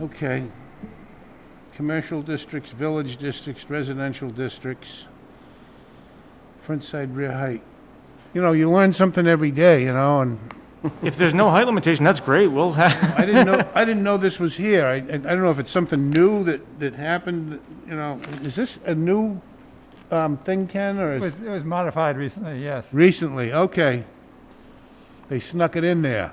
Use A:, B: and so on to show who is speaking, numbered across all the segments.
A: Okay. Commercial districts, village districts, residential districts, front side, rear height. You know, you learn something every day, you know, and
B: If there's no height limitation, that's great, we'll have,
A: I didn't know, I didn't know this was here. I, I I don't know if it's something new that, that happened, you know, is this a new, um, thing, Ken, or
C: It
A: is
C: was, it was modified recently, yes.
A: Recently, okay. They snuck it in there.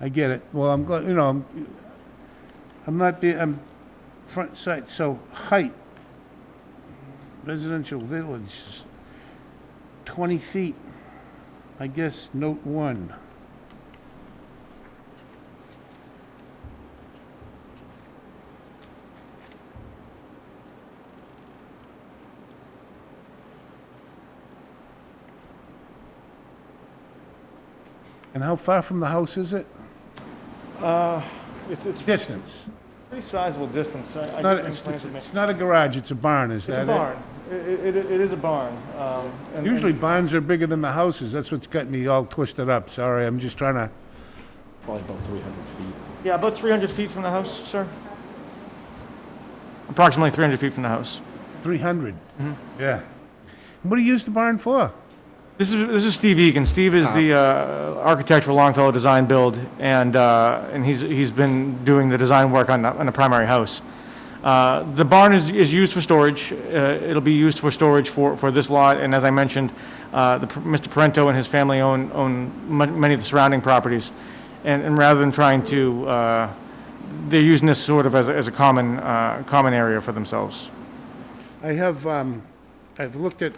A: I get it. Well, I'm glad, you know, I'm, I'm not being, I'm front sight, so height. Residential village, twenty feet. I guess note one. And how far from the house is it?
D: Uh, It's, it's
A: Distance.
D: pretty sizable distance. I- I
A: Not,
D: didn't
A: it's,
D: plan to make-
A: it's not a garage, it's a barn,
D: It's
A: is that it?
D: a barn. It, it, it is a barn. um, and-
A: Usually barns are bigger than the houses. That's what's got me all twisted up. Sorry, I'm just trying to,
E: Probably about 300 feet.
D: Yeah, about 300 feet from the house, sir.
B: approximately 300 feet from the house.
A: 300. Yeah. What do you use the barn for?
B: This is, this is Steve Egan. Steve
F: Ah.
B: is the uh, architect for Longfellow Design Build, and, uh, and he's, he's been doing the design work on the, on the primary house. Uh, The barn is, is used for storage. Uh, It'll be used for storage for, for this lot, and as I mentioned, uh, the Mr. Parento and his family own, own mu- many of the surrounding properties. And, and rather than trying to, uh, they're using this sort of as, a- as a common, uh, common area for themselves.
A: I have, um, I've looked at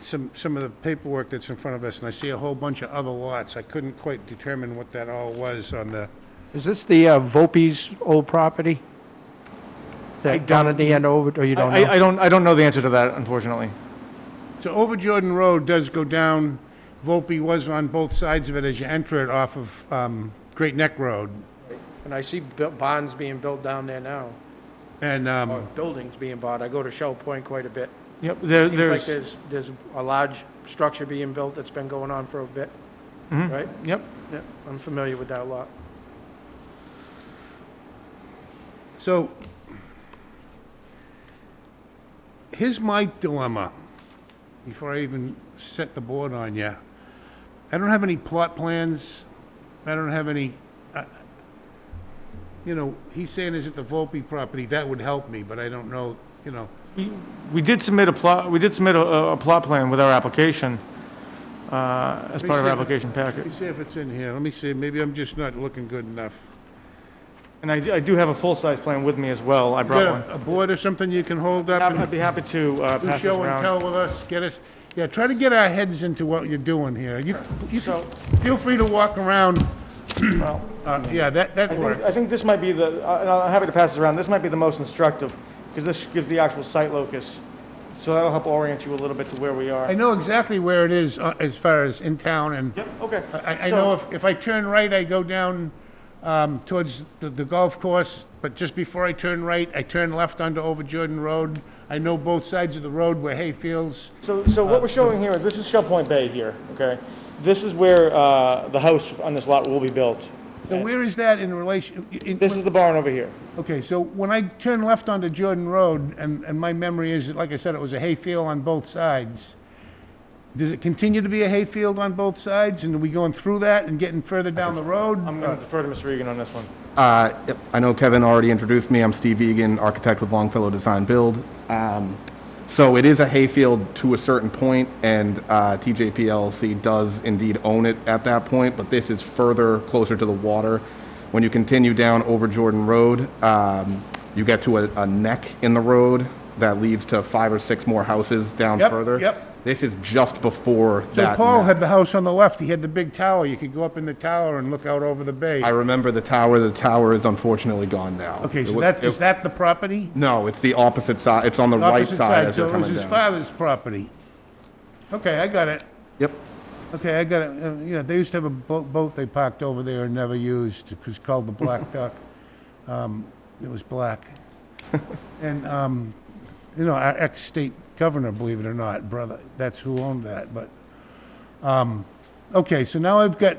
A: some, some of the paperwork that's in front of us, and I see a whole bunch of other lots. I couldn't quite determine what that all was on the,
F: Is this the uh, Vopie's old property? That down at the end over, or you don't
B: I, I
F: know?
B: don't, I don't know the answer to that, unfortunately.
A: so over Jordan Road does go down, Volpe was on both sides of it as you enter it off of, um, Great Neck Road.
F: And I see bu- bonds being built down there now,
A: And,
F: or
A: um,
F: buildings being bought. I go to Shell Point quite a bit.
B: Yep, there,
F: Seems like
B: there's,
F: there's, there's a large structure being built that's been going on for a bit, right?
B: yep.
F: Yeah, I'm familiar with that lot.
A: So, here's my dilemma, before I even set the board on you. I don't have any plot plans, I don't have any, I- you know, he's saying is it the Volpe property, that would help me, but I don't know, you know.
B: We did submit a plot, we did submit a- a, a plot plan with our application, uh, as part of our application
A: Let
B: packet.
A: me see if it's in here, let me see, maybe I'm just not looking good enough.
B: And I, I do have a full-size plan with me as well, I brought
A: Got
B: one.
A: a- a board or something you can hold up? and-
B: I'd be happy to, uh,
A: Do
B: pass this
A: show and
B: around.
A: tell with us, get us, yeah, try to get our heads into what you're doing here. You, you can-
D: So-
A: feel free to walk around,
D: Well,
A: uh, yeah, that, that
D: I think,
A: works.
D: I think this might be the, I- and I'm happy to pass this around, this might be the most instructive, because this gives the actual site locus. So that'll help orient you a little bit to where we
A: I
D: are.
A: know exactly where it is uh, as far as in town, and
D: Yep, okay.
A: I, I
D: So-
A: know if, if I turn right, I go down, um, towards the, the golf course, but just before I turn right, I turn left onto Over Jordan Road. I know both sides of the road where hayfields,
D: So, so
A: uh,
D: what we're showing here, this is Shell Point Bay here, okay? This is where, uh, the house on this lot will be built.
A: so where is that in relation? in-
D: This is the barn over here.
A: Okay, so when I turn left onto Jordan Road, and, and my memory is, that, like I said, it was a hayfield on both sides. Does it continue to be a hayfield on both sides, and are we going through that and getting further down the road?
D: I'm gonna defer to Mr. Regan on this one.
E: Uh, yep, I know Kevin already introduced me. I'm Steve Egan, architect with Longfellow Design Build. Um, So it is a hayfield to a certain point, and uh, TJP LLC does indeed own it at that point, but this is further closer to the water. When you continue down over Jordan Road, um, you get to a a neck in the road that leads to five or six more houses down
A: Yep,
E: further.
A: yep.
E: This is just before that.
A: So Paul
E: neck.
A: had the house on the left, he had the big tower, you could go up in the tower and look out over the bay.
E: I remember the tower. The tower is unfortunately gone now.
A: Okay,
E: It
A: so
E: wa-
A: that's,
E: it-
A: is that the property?
E: No, it's the opposite side. It's on the right
A: Opposite
E: side as
A: So
E: you're
A: it was
E: coming
A: his
E: down.
A: father's property. Okay, I got it.
E: Yep.
A: Okay, I got it. Uh, You know, they used to have a boat, boat they parked over there and never used. It was called the Black Duck. Um, it was black. and, um, you know, our ex state governor, believe it or not, brother, that's who owned that. But, um, okay, so now I've got